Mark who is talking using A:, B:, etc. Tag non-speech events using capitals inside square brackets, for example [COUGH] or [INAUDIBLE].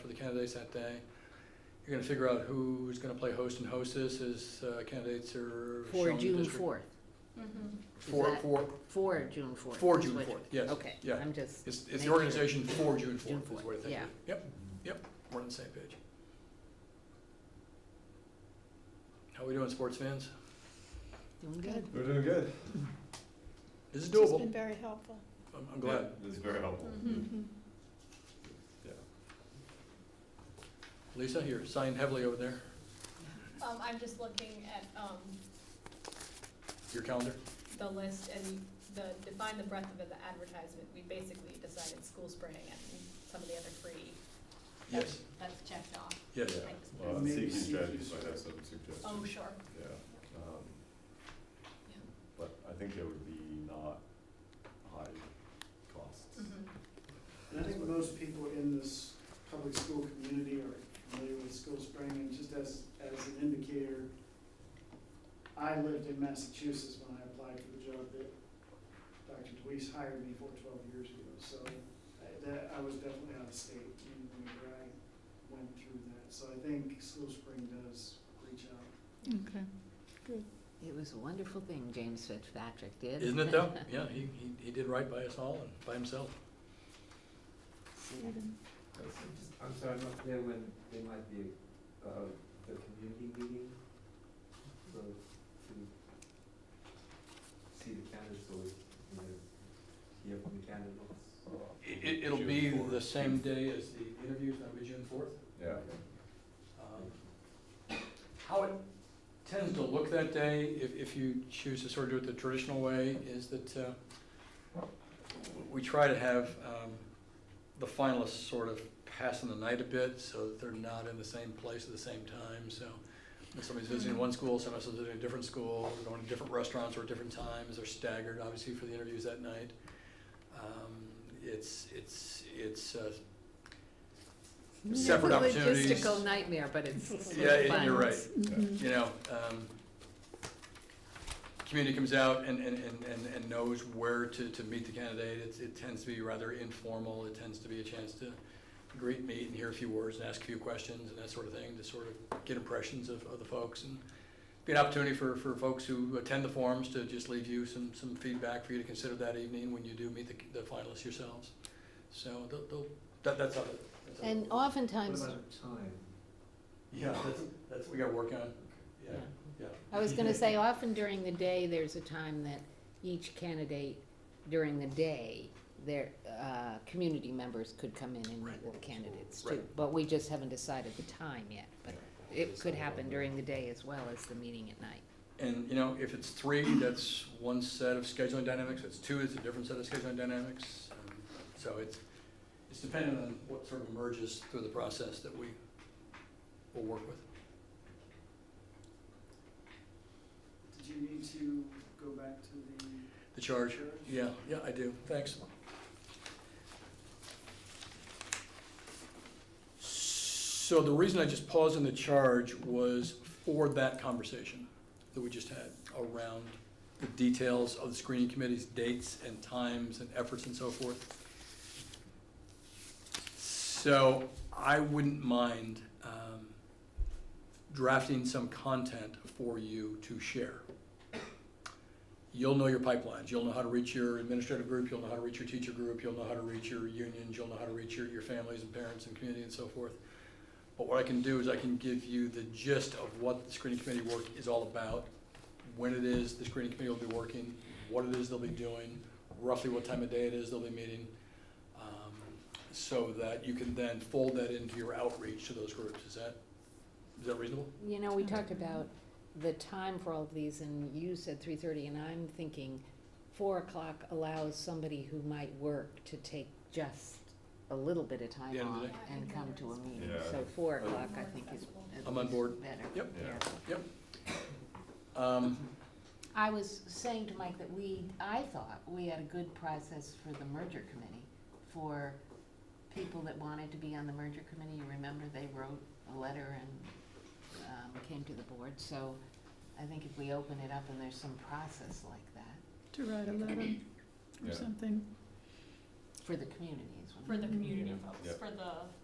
A: for the candidates that day. You're gonna figure out who's gonna play host and hostess as uh, candidates are
B: For
A: shown in the
B: June
A: district.
B: fourth,
A: For,
B: that-
A: for,
B: for June fourth.
A: For
B: is
A: June
B: what-
A: 4th, yes,
B: Okay,
A: yeah.
B: I'm just,
A: it's,
B: Make
A: it's the
B: sure.
A: organization for June
B: June
A: fourth is
B: 4th,
A: what I think. it
B: yeah.
A: is. Yep, yep, we're on the same page. How we doing, sports fans?
B: doing good.
C: We're doing good.
A: This is
D: It's
A: doable.
D: been very helpful.
A: I'm, I'm glad.
C: Yeah, This is very helpful.
E: Mm-hmm.
D: Mm-hmm.
A: Lisa, you're signed heavily over there,
E: Um, I'm just looking at, um,
A: your calendar.
E: the list and the, define the breadth of the advertisement, we basically decided school spring and some of the other free.
A: Yes,
E: That's checked off.
A: yes.
C: Yeah.
E: Thanks.
C: Well,
F: Maybe
C: CQ
F: CQ
C: Uh, strategies might have some suggestions.
E: Oh, sure.
C: Yeah. um,
E: Yeah.
C: But I think there would be not high costs.
E: Mhm.
F: And I think most people in this public school community are familiar with School Spring, and just as, as an indicator, I lived in Massachusetts when I applied for the job that Dr. Deweese hired me for twelve years ago, so I- that, I was definitely out of state when- whenever I went through that, so I think School Spring does reach out.
D: Okay.
B: It was a wonderful thing James Fitzpatrick did.
A: Isn't
B: [LAUGHS]
A: it though? Yeah, he, he, he did right by us all and by himself.
D: Mm-hmm.
G: I'm sorry, I'm not clear when there might be, uh, the community meeting, so to see the candidates or, you know, hear from the candidates.
A: It, it'll
C: June
A: be
C: fourth.
A: the same day as the interviews, that'll be June fourth.
C: Yeah.
A: um, How it tends to look that day, if, if you choose to sort of do it the traditional way, is that, uh, we try to have, um, the finalists sort of passing the night a bit, so that they're not in the same place at the same time, so. When somebody's visiting one school, somebody's visiting a different school, they're going to different restaurants or different times, they're staggered, obviously, for the interviews that night. Um, it's, it's, it's, uh, separate opportunities.
B: It's a logistical nightmare, but
A: [LAUGHS]
B: it's
A: Yeah,
B: sort of
A: and
B: fun.
A: you're right.
D: Mm-hmm.
A: You know, um, community comes out and, and, and, and- and knows where to, to meet the candidate. It's, it tends to be rather informal. It tends to be a chance to greet, meet, and hear a few words and ask a few questions and that sort of thing to sort of get impressions of, of the folks and be an opportunity for, for folks who attend the forums to just leave you some, some feedback for you to consider that evening when you do meet the, the finalists yourselves. So they'll, they'll, that, that's how. it- that's how it
B: And
A: works.
G: What
B: oftentimes,
G: about time?
A: Yeah, that's, that's what we gotta work on. Yeah,
B: Yeah.
A: yeah.
B: I was gonna say, often during the day, there's a time that each candidate, during the day, their, uh, community members could come in and meet
A: Right.
B: with the candidates too.
A: Right.
B: But we just haven't decided the time yet, but it could happen during the day as well as the meeting at night.
A: And, you know, if it's three, that's one set of scheduling dynamics, if it's two, it's a different set of scheduling dynamics. Um, So it's, it's dependent on what sort of emerges through the process that we will work with.
F: Did you need to go back to the
A: The charge,
F: church?
A: yeah, yeah, I do, thanks. So the reason I just paused on the charge was for that conversation that we just had around the details of the screening committee's dates and times and efforts and so forth. So I wouldn't mind um, drafting some content for you to share. You'll know your pipelines, you'll know how to reach your administrative group, you'll know how to reach your teacher group, you'll know how to reach your unions, you'll know how to reach your, your families and parents and community and so forth. But what I can do is I can give you the gist of what the screening committee work is all about, when it is the screening committee will be working, what it is they'll be doing, roughly what time of day it is they'll be meeting, um, so that you can then fold that into your outreach to those groups. Is that, is that reasonable?
B: You know, we talked about the time for all of these, and you said three thirty, and I'm thinking four o'clock allows somebody who might work to take just a little bit of time
A: The end of the
B: off
A: day.
B: and come to a meeting,
C: Yeah.
B: so four
C: Uh,
B: o'clock, I think, is at
A: I'm on
B: least
A: board.
B: better.
A: Yep.
C: Yeah.
A: Um,
B: I was saying to Mike that we, I thought we had a good process for the merger committee, for people that wanted to be on the merger committee, you remember they wrote a letter and, um, came to the board, so I think if we open it up and there's some process like that,
D: To write a letter
C: Yeah.
D: or something.
B: for the community is what I'm.
E: For the community
C: Yeah.
E: folks, for the